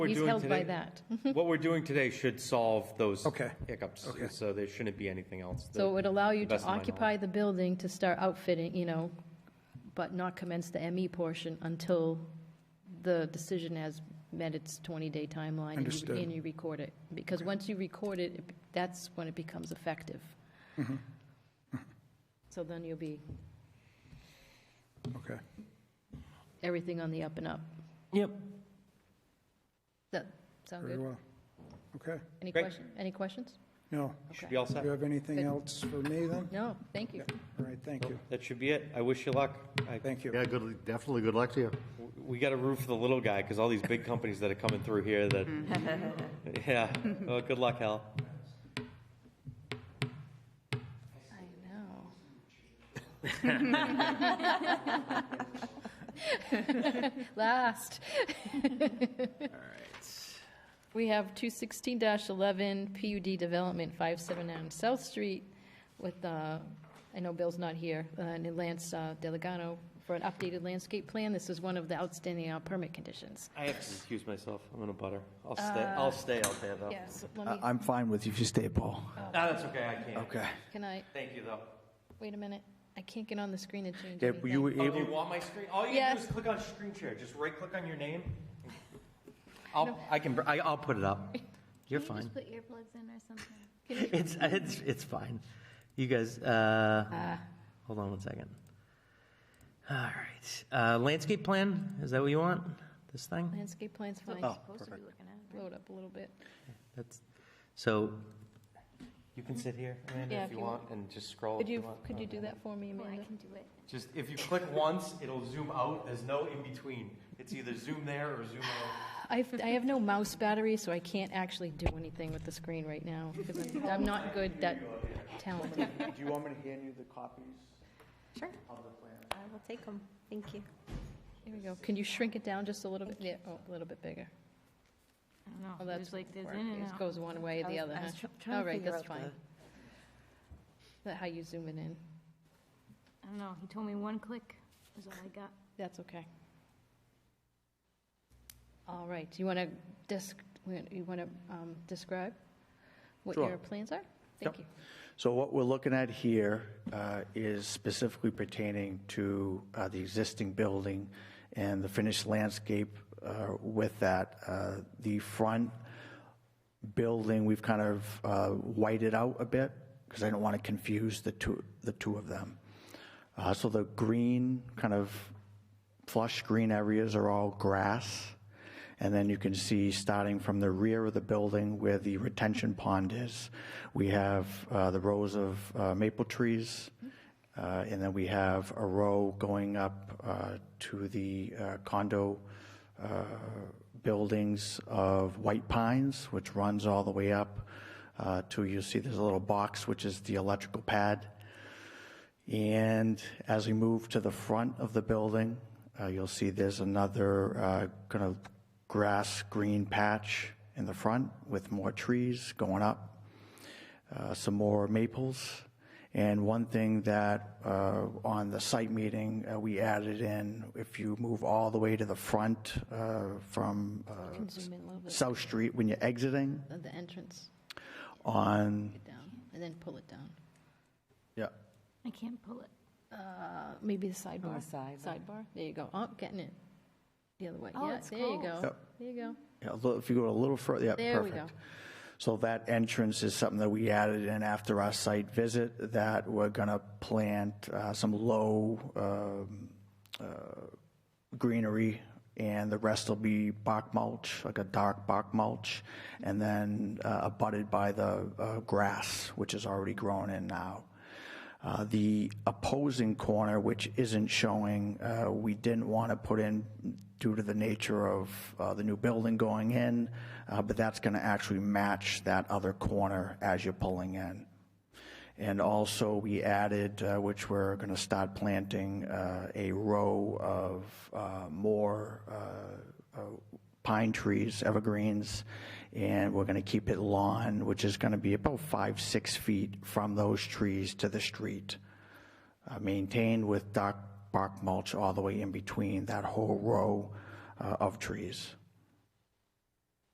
we're He's doing held by today- that. What we're doing today should solve those Okay. hiccups, Okay. so there shouldn't be anything else. So it would allow you the to best of my occupy the building to start outfitting, you know, but not commence the ME portion until the decision has met its 20-day timeline. and you- Understood. And you record it, because once you record it, it be- that's when it becomes effective. Mm-hmm. So then you'll be Okay. everything on the up and up. Yep. That sound Very good? well. Okay. Any Great. question, any questions? No. Should be all Do set. you have anything Good. else for me then? No, thank you. All right, thank you. That should be it. I wish you luck. I, Thank you. Yeah, good, definitely good luck to you. we got to root for the little guy because all these big companies that are coming through here that, Mm-hmm. yeah. Well, good luck, Hal. I know. Last. We have two sixteen eleven PUD development, five seven nine South Street with, uh, I know Bill's not here, uh, and Lance uh, Delegano for an updated landscape plan. This is one of the outstanding uh, permit conditions. I have to excuse myself. I'm in a butter. I'll stay. Uh, I'll stay out there though. Yes, let I- me, I'm fine with you if you stay, Paul. No, that's okay. I can't. Okay. can I, Thank you though. wait a minute, I can't get on the screen and change Yeah, anything. you were Oh, you able, want my screen? All you Yes. do is click on screen share. Just right click on your name. I'll, I can. br- I, I'll put it up. You're Can you fine. just put earplugs in or something? Oh, It's, it's, it's fine. You guys, Ah, uh, hold on one second. All right. Uh, landscape plan, is that what you want? This thing? Landscape plan's That's fine, Oh. what you're supposed to be looking at. load up a little bit. That's, so, You can sit here, Amanda, Yeah, if you want, and just scroll. Could if you, want. could you do that for me, Oh, Well, I Amanda? can do it. Just if you click once, it'll zoom out. There's no in between. It's either zoom there or zoom out. I've, I have no mouse battery, so I can't actually do anything with the screen right now, because I'm, I'm not good that talented. Do you want me to hand you the copies? Sure. I will take them. Thank you. Here we go. Can you shrink it down just a little bit? Yeah, oh, a little bit bigger. I don't know. Oh, that's There's like, there's Or in and It out. goes one way or I the was- other, I was huh? tr- trying to All right, figure that's out the- fine. That how you zoom it in. I don't know. He told me one click is all I got. That's okay. All right, do you want to disc, you want to, um, describe what Sure. your plans are? Thank you. so what we're looking at here uh, is specifically pertaining to uh, the existing building and the finished landscape uh, with that. Uh, The front building, we've kind of uh, whited out a bit because I don't want to confuse the two, the two of them. Uh, So the green, kind of flush green areas are all grass. And then you can see, starting from the rear of the building where the retention pond is, we have uh, the rows of uh, maple trees. uh, And then we have a row going up uh, to the uh, condo uh, buildings of white pines, which runs all the way up uh, to, you'll see there's a little box, which is the electrical pad. And as we move to the front of the building, uh, you'll see there's another uh, kind of grass green patch in the front with more trees going up, uh, some more maples. And one thing that uh, on the site meeting uh, we added in, if you move all the way to the front uh, from uh, You can zoom in a little bit, South Street when you're exiting at the entrance, on, it down, and then pull it down. yeah, I can't pull it. Uh, Maybe the sidebar. Sidebar, there you go. Oh, getting it. The other way. Oh, Yeah, it's there you cold. go. Yep. There you go. Yeah, a little- if you go a little further, yeah, There we go. perfect. So that entrance is something that we added in after our site visit, that we're going to plant uh, some low um, uh, greenery, and the rest will be bark mulch, like a dark bark mulch, and then uh, abutted by the uh, grass, which is already grown in now. Uh, The opposing corner, which isn't showing, uh, we didn't want to put in due to the nature of uh, the new building going in, uh, but that's going to actually match that other corner as you're pulling in. And also, we added, uh, which we're going to start planting, uh, a row of uh, more uh, uh, pine trees, evergreens, and we're going to keep it lawn, which is going to be about five, six feet from those trees to the street, uh, maintained with dark bark mulch all the way in between that whole row uh, of trees.